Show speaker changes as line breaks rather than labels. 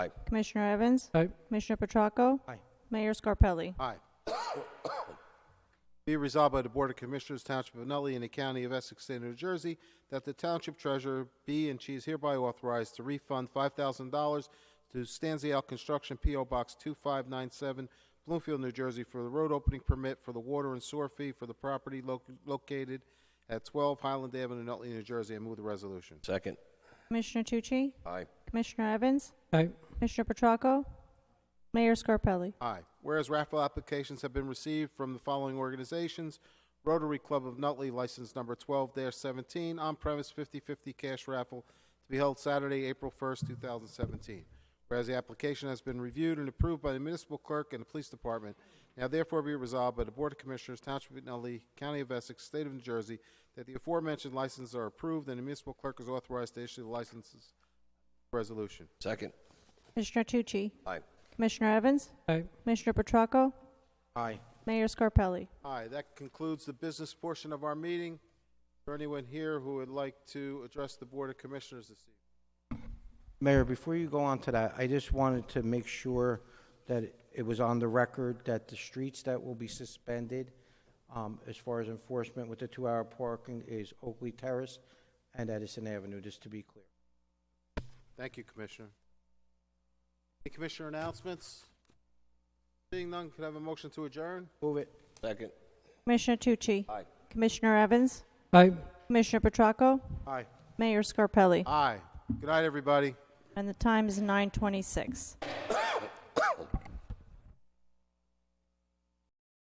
Aye.
Commissioner Evans?
Aye.
Commissioner Petracco?
Aye.
Mayor Scarpelli?
Aye. Be resolved by the Board of Commissioners, Township of Nutley, and the County of Essex, State of New Jersey, that the Township Treasurer be and she is hereby authorized to refund five thousand dollars to Stanzial Construction, P.O. Box two five nine seven, Bloomfield, New Jersey, for the road opening permit for the water and sewer fee for the property loc- located at twelve Highland Avenue, Nutley, New Jersey. I move the resolution.
Second.
Commissioner Tucci?
Aye.
Commissioner Evans?
Aye.
Commissioner Petracco? Mayor Scarpelli?
Aye. Whereas raffle applications have been received from the following organizations: Rotary Club of Nutley, license number 12-17, on-premise 50/50 cash raffle to be held Saturday, April 1st, 2017. Whereas the application has been reviewed and approved by the municipal clerk and the police department, now therefore be resolved by the Board of Commissioners, Township of Nutley, County of Essex, State of New Jersey, that the aforementioned licenses are approved and the municipal clerk is authorized to issue the licenses. Resolution.
Second.
Commissioner Tucci?
Aye.
Commissioner Evans?
Aye.
Commissioner Petracco?
Aye.
Mayor Scarpelli?
Aye, that concludes the business portion of our meeting. Is there anyone here who would like to address the Board of Commissioners this evening?
Mayor, before you go on to that, I just wanted to make sure that it was on the record that the streets that will be suspended um, as far as enforcement with the two-hour parking is Oakley Terrace and Edison Avenue, just to be clear.
Thank you, Commissioner. Any Commissioner announcements? Seeing none, could I have a motion to adjourn?
Move it.
Second.
Commissioner Tucci?
Aye.
Commissioner Evans?
Aye.
Commissioner Petracco?
Aye.
Mayor Scarpelli?
Aye. Good night, everybody.
And the time is 9:26.